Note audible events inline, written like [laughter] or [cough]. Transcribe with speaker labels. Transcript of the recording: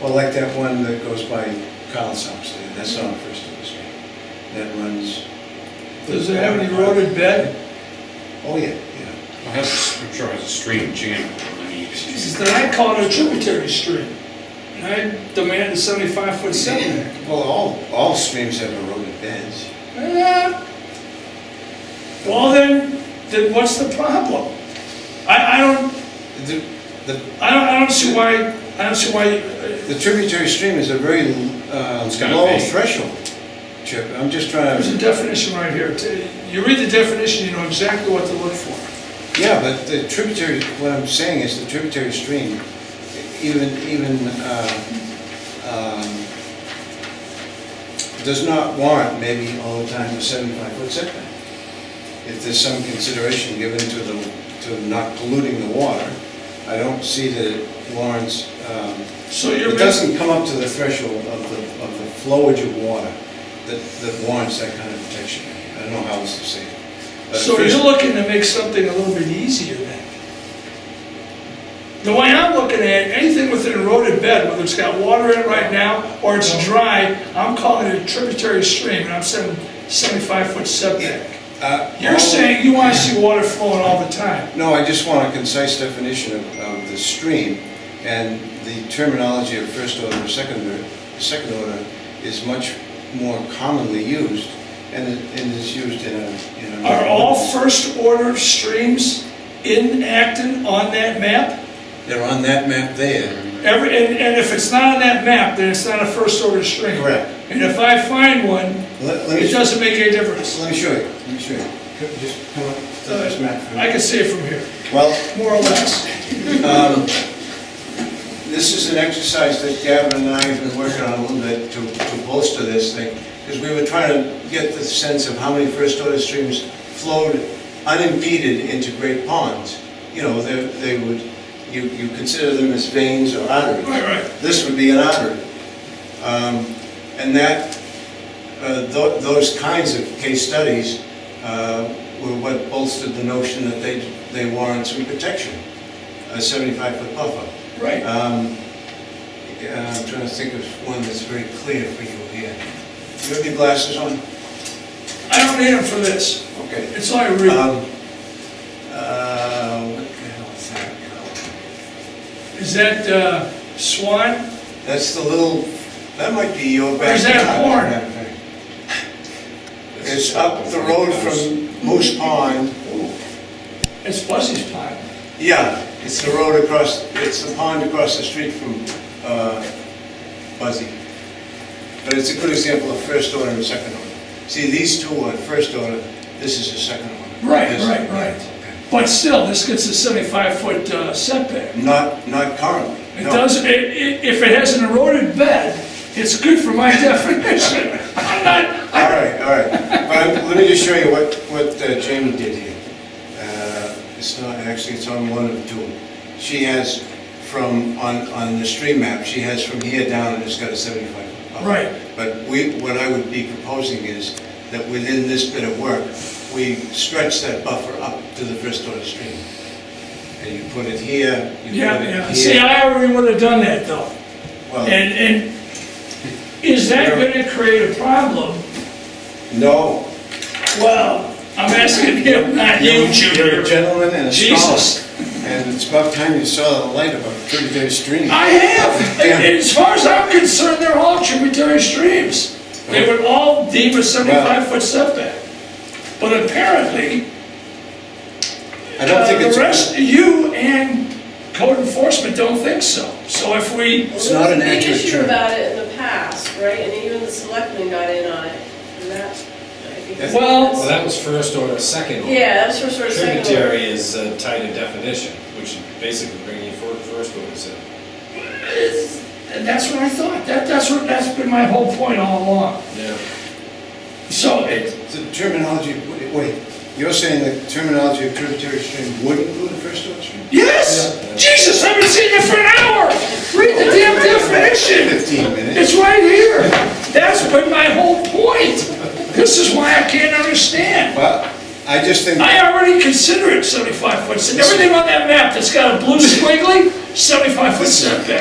Speaker 1: Well, like that one that goes by Collins House there, that's on First Street, that runs.
Speaker 2: Does it have any eroded bed?
Speaker 1: Oh, yeah, yeah.
Speaker 3: Well, that's, I'm sure it's a stream channel. I mean, it's-
Speaker 2: Then I'd call it a tributary stream. And I'd demand a seventy-five foot setback.
Speaker 1: Well, all, all streams have eroded beds.
Speaker 2: Eh, Well, then, then what's the problem? I, I don't,
Speaker 1: The, the
Speaker 2: I don't, I don't see why, I don't see why, uh,
Speaker 1: the tributary stream is a very uh,
Speaker 3: It's gotta
Speaker 1: low
Speaker 3: be.
Speaker 1: threshold, Chip, I'm just trying
Speaker 2: there's a
Speaker 1: to,
Speaker 2: definition right here. T- You read the definition, you know exactly what to look for.
Speaker 1: yeah, but the tributary, what I'm saying is the tributary stream, even, even, uh, um, does not warrant maybe all the time a seventy-five foot setback. If there's some consideration given to the, to not polluting the water, I don't see that it warrants, um,
Speaker 2: So you're.
Speaker 1: It
Speaker 2: making-
Speaker 1: doesn't come up to the threshold of the, of the flowage of water that, that warrants that kind of protection. I don't know how else to say it. But
Speaker 2: So
Speaker 1: first-
Speaker 2: you're looking to make something a little bit easier then? The way I'm looking at it, anything with an eroded bed, whether it's got water in it right now or it's dry, I'm calling it a tributary stream and I'm saying 75 foot setback.
Speaker 1: Uh,
Speaker 2: You're saying you want to see water flowing all the time.
Speaker 1: No, I just want a concise definition of, of the stream, and the terminology of first order or second order, second order is much more commonly used, and it, and is used in a, in a.
Speaker 2: Are all first order streams in Acton on that map?
Speaker 1: They're on that map there.
Speaker 2: Every, and, and if it's not on that map, then it's not a first order stream.
Speaker 1: Correct.
Speaker 2: And if I find one,
Speaker 1: Let, let me,
Speaker 2: it doesn't make any difference.
Speaker 1: let me show you, let me show you. Just come up to this map. for me.
Speaker 2: I can see it from here.
Speaker 1: Well,
Speaker 2: more or less.
Speaker 1: This is an exercise that Gavin and I have been working on a little bit to to bolster this thing, because we were trying to get the sense of how many first order streams flowed unimpeded into great ponds. You know, they they would, you you consider them as veins or arteries.
Speaker 2: Right, right.
Speaker 1: This would be an artery. Um, And that, uh, tho- those kinds of case studies uh, were what bolstered the notion that they they warrant some protection, a 75-foot buffer.
Speaker 2: Right.
Speaker 1: Um, yeah, I'm trying to think of one that's very clear for you here. Do you have your glasses on?
Speaker 2: I don't need them for this.
Speaker 1: Okay.
Speaker 2: It's all I
Speaker 1: Um,
Speaker 2: read.
Speaker 1: uh, What the hell is that?
Speaker 2: Is that uh, Swan?
Speaker 1: That's the little, that might be your
Speaker 2: Or
Speaker 1: back.
Speaker 2: is that a horn?
Speaker 1: It's up the road from Moose Pond.
Speaker 2: It's Buzzy's pond.
Speaker 1: Yeah, it's the road across, it's the pond across the street from uh, Buzzy. But it's a good example of first order and second order. See, these two are first order, this is a second order.
Speaker 2: Right,
Speaker 1: This-
Speaker 2: right, right. But still, this gets a 75-foot setback.
Speaker 1: Not, not currently.
Speaker 2: It
Speaker 1: no.
Speaker 2: does, i- i- if it has an eroded bed, it's good for my [laughs] definition. I'm not,
Speaker 1: All right, all right. But I'm- let me just show you what, what uh, Jamie did here. Uh, It's not, actually, it's on one of two. She has from, on, on the stream map, she has from here down, and it's got a 75. up.
Speaker 2: Right.
Speaker 1: But we, what I would be proposing is that within this bit of work, we stretch that buffer up to the first order stream. And you put it here, you
Speaker 2: yeah,
Speaker 1: put it
Speaker 2: yeah.
Speaker 1: here.
Speaker 2: See, I already would have done that though.
Speaker 1: Well,
Speaker 2: And, and is that gonna create a problem?
Speaker 1: No,
Speaker 2: Well, I'm asking him, not you,
Speaker 1: You're
Speaker 2: Junior.
Speaker 1: a gentleman and a
Speaker 2: Jesus.
Speaker 1: scholar. And it's about time you saw the light of a tributary stream.
Speaker 2: I have. And- and As far as I'm concerned, they're all tributary streams. They would all deem a 75-foot setback. But apparently,
Speaker 1: I don't
Speaker 2: uh,
Speaker 1: think
Speaker 2: the
Speaker 1: it's.
Speaker 2: rest, you and code enforcement don't think so. So if we,
Speaker 1: It's not an accurate
Speaker 4: There was a big issue
Speaker 1: term.
Speaker 4: about it in the past, right, and even the selectmen got in on it, and that, I think. is-
Speaker 2: Well-
Speaker 5: Well, that was first order, second order.
Speaker 4: Yeah, that's for sort of second.
Speaker 5: Tributary is uh, tied to definition, which is basically bringing you for first order, so.
Speaker 2: and that's what I thought, that, that's what, that's been my whole point all along.
Speaker 5: Yeah.
Speaker 2: So it,
Speaker 1: The terminology, wait, you're saying the terminology of tributary stream would include a first order stream?
Speaker 2: yes, Jesus, I've been sitting here for an hour. Read the damn definition.
Speaker 1: Fifteen minutes.
Speaker 2: It's right here. That's been my whole point. This is why I can't understand.
Speaker 1: Well, I just think,
Speaker 2: I already consider it 75 foot. Everything on that map that's got a blue squiggly, 75 foot setback.